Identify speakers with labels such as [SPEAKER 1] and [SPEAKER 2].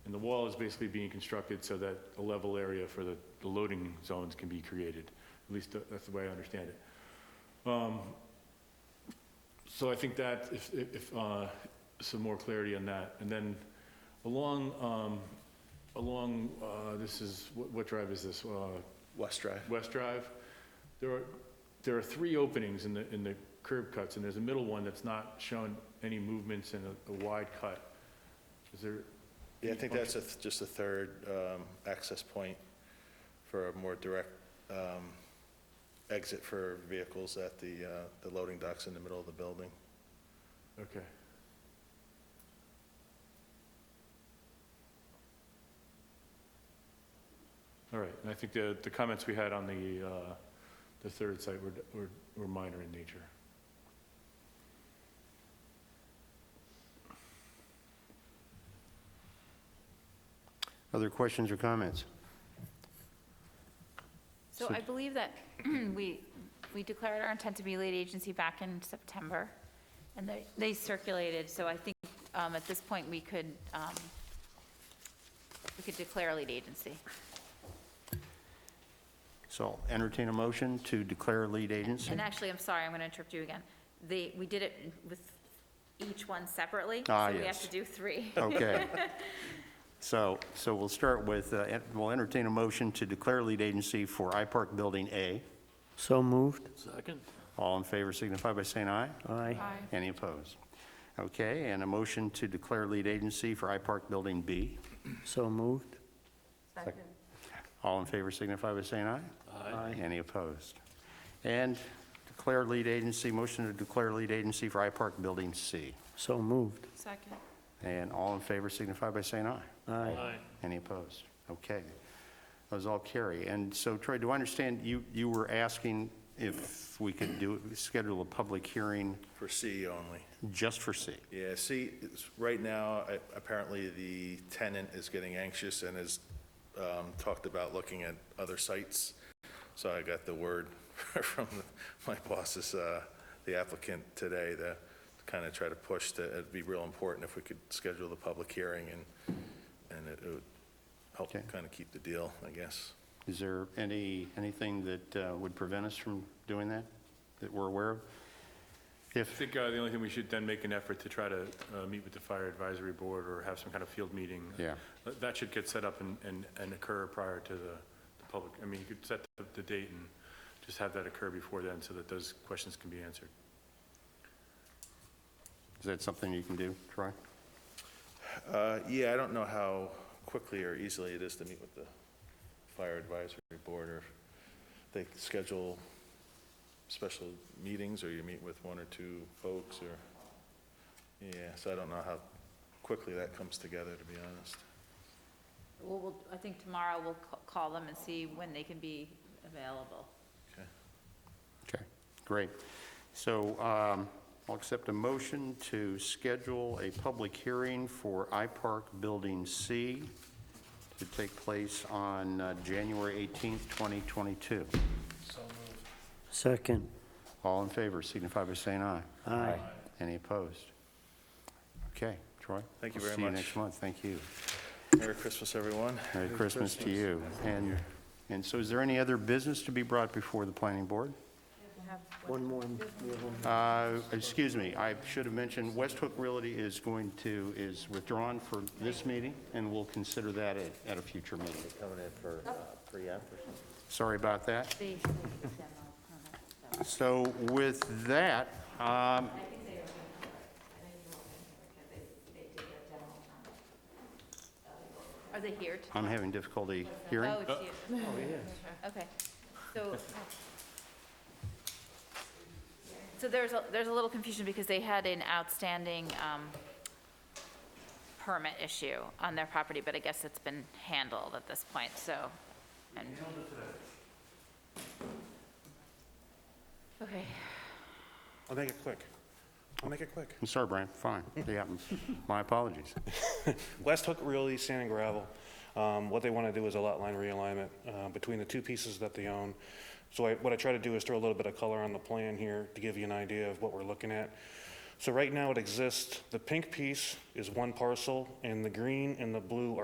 [SPEAKER 1] And the wall is basically being constructed so that a level area for the the loading zones can be created. At least tha- that's the way I understand it. Um, So I think that, if, if, uh, some more clarity on that. And then along, um, along, uh, this is, what- what drive is this? Uh,
[SPEAKER 2] West Drive.
[SPEAKER 1] West Drive. There are, there are three openings in the, in the curb cuts, and there's a middle one that's not shown any movements and a- a wide cut. Is there?
[SPEAKER 2] Yeah, I think that's a th- just a third um, access point for a more direct um, exit for vehicles at the, uh, the loading docks in the middle of the building.
[SPEAKER 1] Okay. All right, and I think the, the comments we had on the, uh, the third site were, were were minor in nature.
[SPEAKER 3] Other questions or comments?
[SPEAKER 4] So I believe that we, we declared our intent to be lead agency back in September, and they, they circulated, so I think um, at this point, we could, um, we could declare lead agency.
[SPEAKER 3] So entertain a motion to declare lead agency.
[SPEAKER 4] And actually, I'm sorry, I'm going to interrupt you again. They, we did it with each one separately.
[SPEAKER 3] Ah,
[SPEAKER 4] So we have
[SPEAKER 3] yes. Oh,
[SPEAKER 4] to do three.
[SPEAKER 3] Okay. So, so we'll start with, uh, en- we'll entertain a motion to declare lead agency for I Park Building A.
[SPEAKER 5] So moved.
[SPEAKER 3] All in favor signify by saying aye.
[SPEAKER 5] Aye.
[SPEAKER 3] Any opposed? Okay, and a motion to declare lead agency for I Park Building B.
[SPEAKER 5] So moved.
[SPEAKER 3] All in favor signify by saying aye.
[SPEAKER 5] Aye.
[SPEAKER 3] Any opposed? And declare lead agency, motion to declare lead agency for I Park Building C.
[SPEAKER 5] So moved.
[SPEAKER 4] Second.
[SPEAKER 3] And all in favor signify by saying aye.
[SPEAKER 5] Aye.
[SPEAKER 3] Any opposed? Okay. Those all carry. And so Troy, do I understand you, you were asking if we could do, schedule a public hearing
[SPEAKER 2] For C E only.
[SPEAKER 3] just for C?
[SPEAKER 2] Yeah, C, it's- right now, I- apparently the tenant is getting anxious and has um, talked about looking at other sites. So I got the word from the- my bosses, uh, the applicant today, to kind of try to push that it'd be real important if we could schedule the public hearing and, and it it would help
[SPEAKER 3] Okay.
[SPEAKER 2] kind of keep the deal, I guess.
[SPEAKER 3] Is there any, anything that uh, would prevent us from doing that, that we're aware of?
[SPEAKER 1] I
[SPEAKER 3] If,
[SPEAKER 1] think uh, the only thing we should then make an effort to try to uh, meet with the fire advisory board or have some kind of field meeting.
[SPEAKER 3] Yeah.
[SPEAKER 1] That- That should get set up and, and and occur prior to the the public, I mean, you could set the- the date and just have that occur before then so that those questions can be answered.
[SPEAKER 3] is that something you can do, Troy?
[SPEAKER 2] Uh, Yeah, I don't know how quickly or easily it is to meet with the fire advisory board, or if they schedule special meetings, or you meet with one or two folks, or, yeah, so I don't know how quickly that comes together, to be honest.
[SPEAKER 4] Well, we'll, I think tomorrow we'll ca- call them and see when they can be available.
[SPEAKER 2] Okay.
[SPEAKER 3] Okay, great. So um, I'll accept a motion to schedule a public hearing for iPark Building C to take place on uh, January 18th, 2022.
[SPEAKER 5] Second.
[SPEAKER 3] All in favor, signify by saying aye.
[SPEAKER 5] Aye.
[SPEAKER 3] Any opposed? Okay, Troy?
[SPEAKER 2] Thank you
[SPEAKER 3] I'll
[SPEAKER 2] very
[SPEAKER 3] See you
[SPEAKER 2] much.
[SPEAKER 3] next month, thank you.
[SPEAKER 2] Merry Christmas, everyone.
[SPEAKER 3] Merry Christmas to you. And, and so is there any other business to be brought before the planning board?
[SPEAKER 5] One more.
[SPEAKER 3] Uh, Excuse me, I should have mentioned, West Hook Realty is going to, is withdrawn for this meeting, and we'll consider that at, at a future meeting.
[SPEAKER 6] Coming in for uh, pre-app or something?
[SPEAKER 3] Sorry about that.
[SPEAKER 4] They-
[SPEAKER 3] So with that, um,
[SPEAKER 4] Are they here tomorrow?
[SPEAKER 3] I'm having difficulty hearing.
[SPEAKER 4] Oh, it's you. Okay, so. So there's, a there's a little confusion because they had an outstanding um, permit issue on their property, but I guess it's been handled at this point, so. and- Okay,
[SPEAKER 2] I'll make it quick. I'll make it quick.
[SPEAKER 3] I'm sorry, Brian, fine. Yeah, my apologies.
[SPEAKER 7] West Hook Realty Sand and Gravel. Um, What they want to do is a lot line realignment uh, between the two pieces that they own. So I- what I try to do is throw a little bit of color on the plan here to give you an idea of what we're looking at. So right now it exists, the pink piece is one parcel, and the green and the blue are.